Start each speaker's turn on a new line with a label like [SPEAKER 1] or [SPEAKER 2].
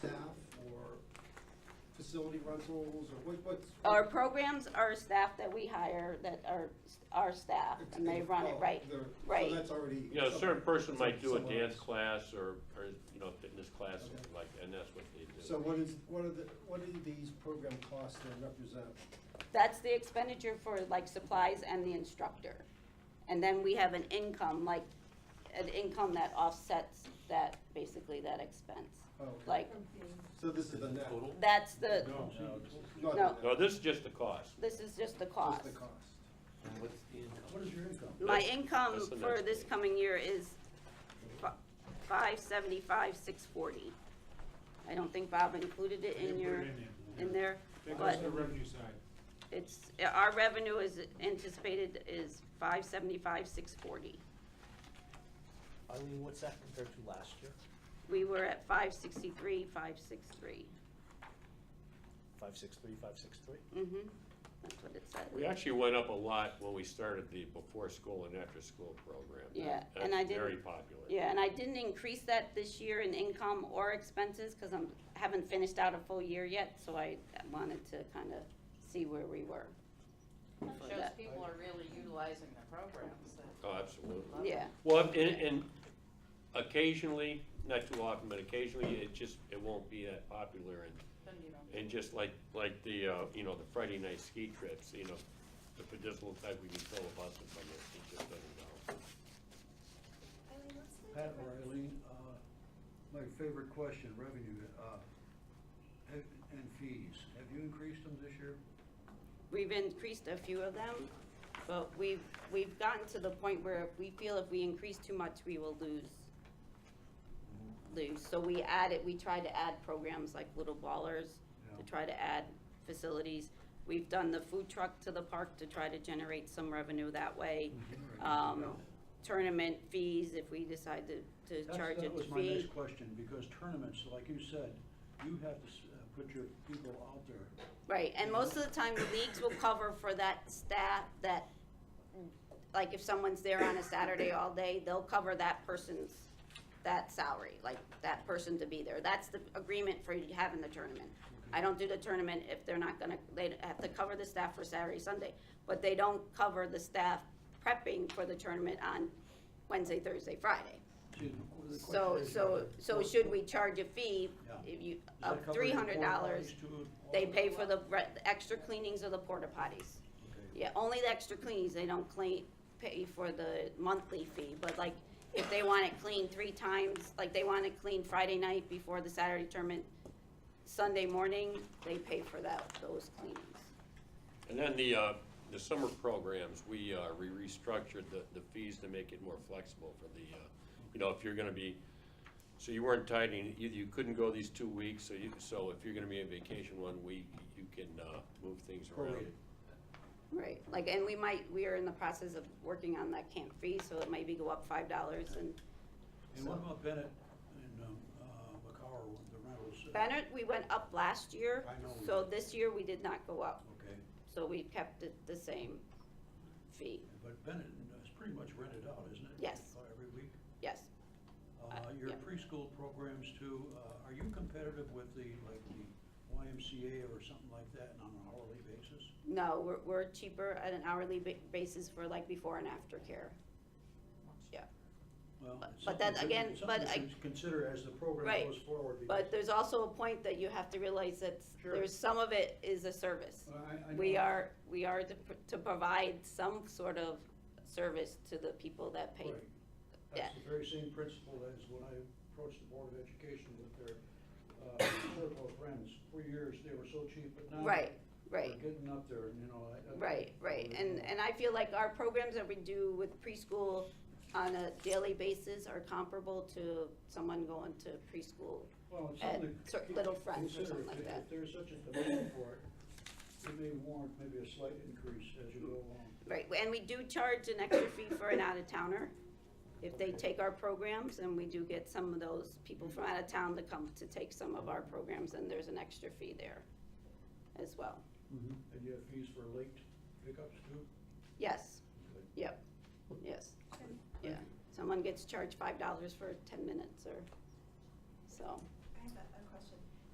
[SPEAKER 1] facility rentals, or what, what's?
[SPEAKER 2] Our programs are staff that we hire, that are our staff, and they run it,
[SPEAKER 1] Oh,
[SPEAKER 2] right,
[SPEAKER 1] they're-
[SPEAKER 2] right.
[SPEAKER 1] So that's already.
[SPEAKER 3] You know, a certain person
[SPEAKER 1] some-
[SPEAKER 3] might do a
[SPEAKER 1] somewhere
[SPEAKER 3] dance
[SPEAKER 1] else.
[SPEAKER 3] class or, or, you know, fitness class, something like, and that's what they do.
[SPEAKER 1] So what is, what are the, what do these program costs then represent?
[SPEAKER 2] That's the expenditure for like supplies and the instructor. And then we have an income, like, an income that offsets that, basically that expense.
[SPEAKER 1] Oh, okay.
[SPEAKER 2] Like,
[SPEAKER 1] So this is the net?
[SPEAKER 2] that's the,
[SPEAKER 1] Not
[SPEAKER 2] No.
[SPEAKER 1] the
[SPEAKER 3] No,
[SPEAKER 1] net,
[SPEAKER 3] this is just the cost.
[SPEAKER 2] this is just the
[SPEAKER 1] just
[SPEAKER 2] cost.
[SPEAKER 1] the cost. What is your income?
[SPEAKER 2] My
[SPEAKER 3] That's-
[SPEAKER 2] income
[SPEAKER 3] that's the
[SPEAKER 2] for
[SPEAKER 3] next
[SPEAKER 2] this
[SPEAKER 3] page.
[SPEAKER 2] coming year is five seventy-five, six forty. I don't think Bob included it in your, in there,
[SPEAKER 4] That goes
[SPEAKER 2] but
[SPEAKER 4] to the revenue side.
[SPEAKER 2] it's, our revenue is anticipated is five seventy-five, six forty.
[SPEAKER 5] Eileen, what's that compared to last year?
[SPEAKER 2] We were at five sixty-three, five six-three.
[SPEAKER 5] Five six three, five six three?
[SPEAKER 2] Mm-hmm, that's what it said.
[SPEAKER 3] We actually went up a lot when we started the before school and after school program.
[SPEAKER 2] Yeah,
[SPEAKER 3] That's
[SPEAKER 2] and I didn't-
[SPEAKER 3] Very popular.
[SPEAKER 2] Yeah, and I didn't increase that this year in income or expenses, cause I'm, haven't finished out a full year yet, so I wanted to kinda see where we were.
[SPEAKER 6] It
[SPEAKER 2] for
[SPEAKER 6] Shows
[SPEAKER 2] that.
[SPEAKER 6] people are really utilizing the programs that.
[SPEAKER 3] Oh, absolutely.
[SPEAKER 2] Yeah,
[SPEAKER 3] Well, and, and occasionally, not too often, but occasionally, it just, it won't be that popular and
[SPEAKER 6] Then you don't-
[SPEAKER 3] And just like, like the, uh, you know, the Friday night ski trips, you know, the medicinal type, we can fill a bus with someone, it just doesn't go.
[SPEAKER 7] Eileen, what's the
[SPEAKER 8] Pat or
[SPEAKER 7] difference?
[SPEAKER 8] Eileen, uh, my favorite question, revenue, uh, and and fees. Have you increased them this year?
[SPEAKER 2] we've increased a few of them, but we've, we've gotten to the point where if we feel if we increase too much, we will lose. Lose, so we added, we try to add programs like Little Ballers, to
[SPEAKER 8] Yeah.
[SPEAKER 2] try to add facilities. We've done the food truck to the park to try to generate some revenue that way. Um, tournament fees, if we decide to, to
[SPEAKER 8] That's-
[SPEAKER 2] charge a
[SPEAKER 8] That was my
[SPEAKER 2] fee.
[SPEAKER 8] next question, because tournaments, like you said, you have to s- uh, put your people out there.
[SPEAKER 2] Right, and most of the time, the leagues will cover for that staff, that, like, if someone's there on a Saturday all day, they'll cover that person's, that salary, like, that person to be there. That's the agreement for having the tournament. I don't do the tournament if they're not gonna, they have to cover the staff for Saturday, Sunday, but they don't cover the staff prepping for the tournament on Wednesday, Thursday, Friday.
[SPEAKER 8] See, the qu- the
[SPEAKER 2] So,
[SPEAKER 8] question is,
[SPEAKER 2] so, so
[SPEAKER 8] what-
[SPEAKER 2] should we charge a fee,
[SPEAKER 8] Yeah.
[SPEAKER 2] if you,
[SPEAKER 8] does that
[SPEAKER 2] of
[SPEAKER 8] cover
[SPEAKER 2] three
[SPEAKER 8] your
[SPEAKER 2] hundred dollars?
[SPEAKER 8] qualifies to all
[SPEAKER 2] They
[SPEAKER 8] that?
[SPEAKER 2] pay for the re- the extra cleanings of the porta potties.
[SPEAKER 8] Okay.
[SPEAKER 2] Yeah, only the extra cleanings, they don't clean, pay for the monthly fee, but like, if they want it cleaned three times, like they want it cleaned Friday night before the Saturday tournament, Sunday morning, they pay for that, those cleanings.
[SPEAKER 3] And then the, uh, the summer programs, we, uh, we restructured the, the fees to make it more flexible for the, uh, you know, if you're gonna be, so you weren't tied in, you, you couldn't go these two weeks, so you, so if you're gonna be on vacation one week, you can, uh, move things around.
[SPEAKER 8] Prorated.
[SPEAKER 2] Right, like, and we might, we are in the process of working on that camp fee, so it maybe go up five dollars and
[SPEAKER 8] And what about Bennett and, um, uh, McCarroll, the rentals? uh,
[SPEAKER 2] Bennett, we went up last year,
[SPEAKER 8] I know we
[SPEAKER 2] so
[SPEAKER 8] did.
[SPEAKER 2] this year we did not go up,
[SPEAKER 8] Okay,
[SPEAKER 2] so we kept it the same fee,
[SPEAKER 8] but Bennett is pretty much rented out, isn't it?
[SPEAKER 2] Yes.
[SPEAKER 8] Uh, Every week?
[SPEAKER 2] yes.
[SPEAKER 8] Uh, Your
[SPEAKER 2] yeah.
[SPEAKER 8] preschool programs too, uh, are you competitive with the, like the YMCA or something like that on an hourly basis?
[SPEAKER 2] No, we're, we're cheaper at an hourly ba- basis for like before and after care. Yeah,
[SPEAKER 8] Well,
[SPEAKER 2] But-
[SPEAKER 8] it's
[SPEAKER 2] but that
[SPEAKER 8] something to-
[SPEAKER 2] again,
[SPEAKER 8] it's
[SPEAKER 2] but
[SPEAKER 8] something to Consider as the program
[SPEAKER 2] Right.
[SPEAKER 8] goes forward. because-
[SPEAKER 2] but there's also a point that you have to realize that
[SPEAKER 8] Sure.
[SPEAKER 2] there's, some of it is a service.
[SPEAKER 8] Well, I- I
[SPEAKER 2] We
[SPEAKER 8] know-
[SPEAKER 2] are, we are to, pr- to provide some sort of service to the people that pay.
[SPEAKER 8] Right.
[SPEAKER 2] yeah.
[SPEAKER 8] That's the very same principle as when I approached the Board of Education with their, uh, circle of friends. For years, they were so cheap, but now.
[SPEAKER 2] Right,
[SPEAKER 8] they're
[SPEAKER 2] right.
[SPEAKER 8] Getting up there, and you know, I. I-
[SPEAKER 2] Right, right,
[SPEAKER 8] I-
[SPEAKER 2] and, and I feel like our programs that we do with preschool on a daily basis are comparable to someone going to preschool.
[SPEAKER 8] Well, it's
[SPEAKER 2] at
[SPEAKER 8] something
[SPEAKER 2] cer-
[SPEAKER 8] to
[SPEAKER 2] Little Friends or
[SPEAKER 8] consider.
[SPEAKER 2] something like
[SPEAKER 8] If-
[SPEAKER 2] that.
[SPEAKER 8] If there's such a demand for it, it may warrant maybe a slight increase as you go along.
[SPEAKER 2] Right, and we do charge an extra fee for an out-of-towner. If they take our programs, and we do get some of those people from out of town to come to take some of our programs, and there's an extra fee there as well.
[SPEAKER 8] And you have fees for late pickups too?
[SPEAKER 2] Yes, yep, yes, yeah. Someone gets charged five dollars for ten minutes or, so,
[SPEAKER 7] I have a a